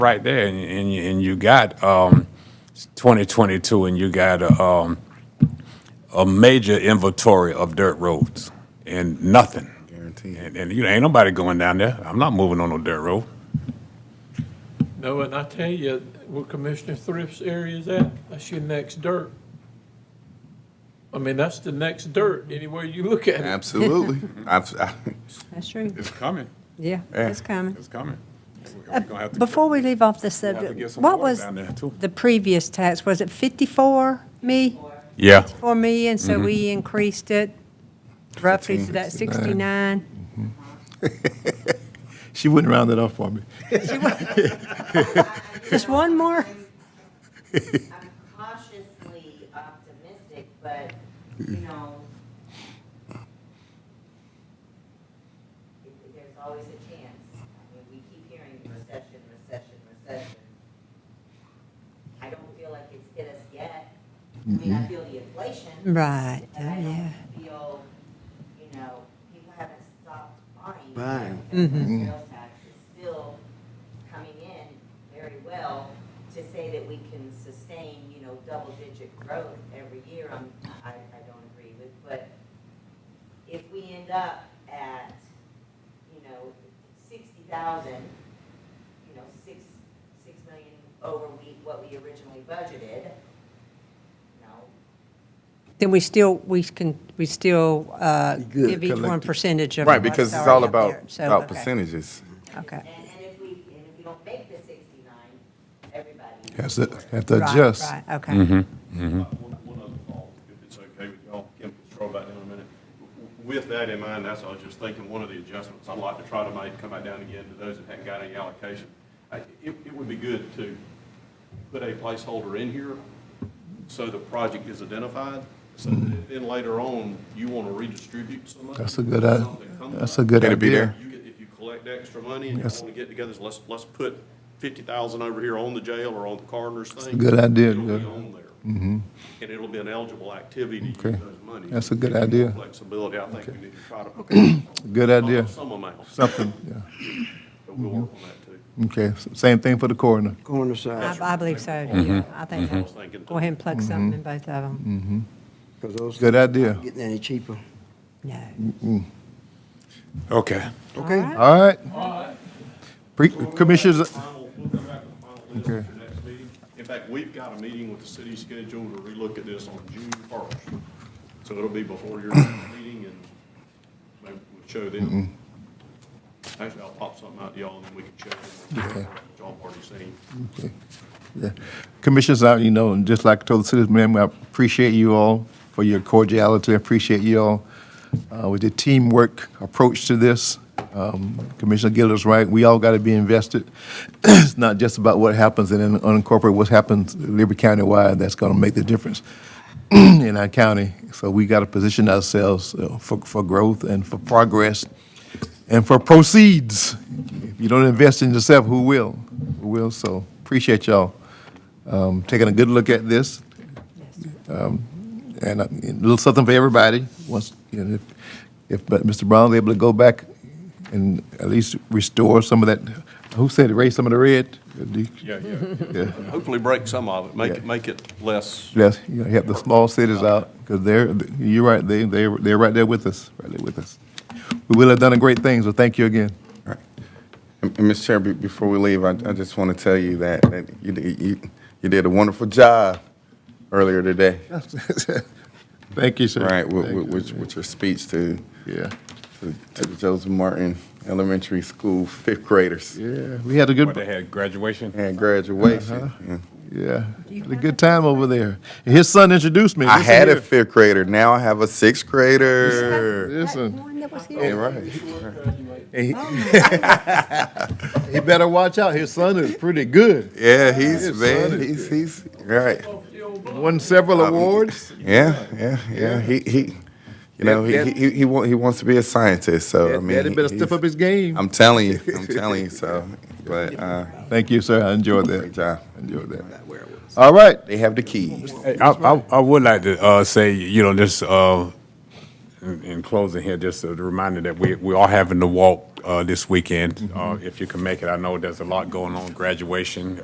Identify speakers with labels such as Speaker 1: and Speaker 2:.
Speaker 1: right there, and, and, you- and you got, um, twenty twenty-two, and you got, a, um, a major inventory of dirt roads and nothing.
Speaker 2: Guaranteed.
Speaker 1: And, and you know, ain't nobody going down there. I'm not moving on no dirt road.
Speaker 3: No, and I tell you, where Commissioner Thrift's area is at, that's your next dirt. I mean, that's the next dirt, anywhere you look at it.
Speaker 2: Absolutely. I've, I,
Speaker 4: That's true.
Speaker 1: It's coming,
Speaker 4: Yeah,
Speaker 2: eh.
Speaker 4: it's coming.
Speaker 1: it's coming.
Speaker 4: Before we leave off the subject, Uh, what was the previous tax? Was it 54 me,
Speaker 1: Yeah,
Speaker 4: 4 million? So we
Speaker 2: Mm-hmm.
Speaker 4: increased it roughly to that 69?
Speaker 5: She wouldn't round it up for me.
Speaker 4: Just one more?
Speaker 6: I'm cautiously optimistic, but, you know, it- there's always a chance. I mean, we keep hearing recession, recession, recession. I don't feel like it's hit us yet. I mean, I feel the inflation,
Speaker 4: Right,
Speaker 6: but I
Speaker 4: oh, yeah.
Speaker 6: don't feel, you know, people haven't stopped buying.
Speaker 2: Buying.
Speaker 4: Mm-hmm.
Speaker 6: And our Sales tax is still coming in very well to say that we can sustain, you know, double-digit growth every year, I'm, I, I don't agree with, but if we end up at, you know, sixty thousand, you know, six, six million over we, what we originally budgeted, no,
Speaker 4: Then we still, we can, we still uh,
Speaker 5: Good,
Speaker 4: give each one
Speaker 5: collective.
Speaker 4: percentage of
Speaker 2: right,
Speaker 4: what's
Speaker 2: because it's
Speaker 4: already
Speaker 2: all
Speaker 4: up
Speaker 2: about,
Speaker 4: there. So,
Speaker 2: about
Speaker 4: okay,
Speaker 2: percentages.
Speaker 4: Okay.
Speaker 6: And, and if we, and if we don't make the sixty-nine, everybody.
Speaker 5: Has to, have to
Speaker 4: Right,
Speaker 5: adjust.
Speaker 4: Right, okay.
Speaker 7: One one other thought, if it's okay with y'all, Kim, just throw back down in a minute. With that in mind, that's, I was just thinking, one of the adjustments I'd like to try to make, come back down again to those that hadn't got any allocation. I- It, it would be good to put a placeholder in here so the project is identified, so that then later on, you want to redistribute some money.
Speaker 5: That's a good, i-
Speaker 7: something comes
Speaker 5: that's a
Speaker 7: up.
Speaker 5: good
Speaker 2: Gotta be
Speaker 5: idea.
Speaker 7: You get- If you collect extra money and you want
Speaker 5: Yes.
Speaker 7: to get together, so let's, let's put fifty thousand over here on the jail or on the coroner's thing.
Speaker 5: good idea,
Speaker 7: It'll be
Speaker 5: good.
Speaker 7: on there. Mm-hmm. And it'll be an eligible activity to
Speaker 5: Okay.
Speaker 7: use those monies.
Speaker 5: That's a good
Speaker 7: Give you
Speaker 5: idea.
Speaker 7: Flexibility, I think we need to try to.
Speaker 5: Good idea.
Speaker 7: Some amount, but
Speaker 5: Something, yeah.
Speaker 7: we'll work on that too.
Speaker 5: Okay, s- same thing for the coroner.
Speaker 8: corner side,
Speaker 4: I I believe so, yeah. I think,
Speaker 7: I
Speaker 5: Mm-hmm.
Speaker 7: was thinking.
Speaker 4: go ahead and plug something in both of them.
Speaker 8: because those
Speaker 5: Good idea.
Speaker 8: aren't getting any cheaper.
Speaker 4: No.
Speaker 1: okay.
Speaker 8: Okay.
Speaker 5: All right. Pre- Commissioners,
Speaker 7: Final- We'll come back with the final
Speaker 5: Okay.
Speaker 7: list at the next meeting. In fact, we've got a meeting with the city scheduled to relook at this on June first. So it'll be before your next meeting and maybe we'll show them.
Speaker 5: Mm-hmm.
Speaker 7: Actually, I'll pop something out to y'all and then we can show them. what Y'all have already seen.
Speaker 5: Mm-hmm. Commissioners, I, you know, and just like I told the citizens, ma'am, I appreciate you all for your cordiality, I appreciate you all uh, with your teamwork approach to this. Um, Commissioner Gill is right, we all got to be invested. It's not just about what happens in an unincorporated, what happens Liberty County-wide, that's going to make the difference in our county. So we got to position ourselves uh, for, for growth and for progress and for proceeds. If you don't invest in yourself, who will? Who will? So appreciate y'all um, taking a good look at this. Um, And uh, a little something for everybody. Once, you know, if- if but Mr. Brown's able to go back and at least restore some of that, who said erase some of the red?
Speaker 7: Yeah, yeah.
Speaker 5: Yeah.
Speaker 7: Hopefully break some of it, make
Speaker 5: Yeah.
Speaker 7: it, make it less.
Speaker 5: Yes, you gotta help the small cities out, because they're, you're right, they, they, they're right there with us, right there with us. We will have done a great thing, so thank you again.
Speaker 2: And, and Ms. Chair, be- before we leave, I, I just want to tell you that, that you, did- you, you did a wonderful job earlier today,
Speaker 5: Thank you, sir.
Speaker 2: right, with,
Speaker 5: Thank
Speaker 2: with,
Speaker 5: you.
Speaker 2: with- with your speech to,
Speaker 5: Yeah,
Speaker 2: to to the Joseph Martin Elementary School fifth graders
Speaker 5: yeah, we had a good,
Speaker 1: But they had graduation.
Speaker 2: and graduation. Yeah.
Speaker 5: yeah, had a good time over there. And His son introduced me.
Speaker 2: I
Speaker 5: Listen
Speaker 2: had a
Speaker 5: here.
Speaker 2: fifth grader, now I have a sixth grader.
Speaker 5: Listen,
Speaker 4: One that was
Speaker 2: Yeah,
Speaker 4: here.
Speaker 2: right.
Speaker 5: he better watch out, his son is pretty good,
Speaker 2: Yeah, he's,
Speaker 5: His
Speaker 2: man,
Speaker 5: son
Speaker 2: he's,
Speaker 5: is
Speaker 2: he's, right.
Speaker 5: won several
Speaker 2: Um,
Speaker 5: awards.
Speaker 2: Yeah, yeah, yeah. He he, you know, he,
Speaker 5: That-
Speaker 2: he he he wa- he wants to be a scientist. So I
Speaker 5: Dad-
Speaker 2: mean,
Speaker 5: Daddy better
Speaker 2: he-
Speaker 5: step
Speaker 2: he's-
Speaker 5: up his game.
Speaker 2: I'm telling you, I'm telling you. So, but uh,
Speaker 5: Thank you, sir, I enjoyed
Speaker 2: great
Speaker 5: that,
Speaker 2: job.
Speaker 5: enjoyed that. All right,
Speaker 2: They have the keys.
Speaker 1: Hey, I, I, I would like to uh, say, you know, just uh, in, in closing here, just a reminder that we, we are having to walk uh, this weekend, uh, if you can make it. I know there's a lot going on, graduation,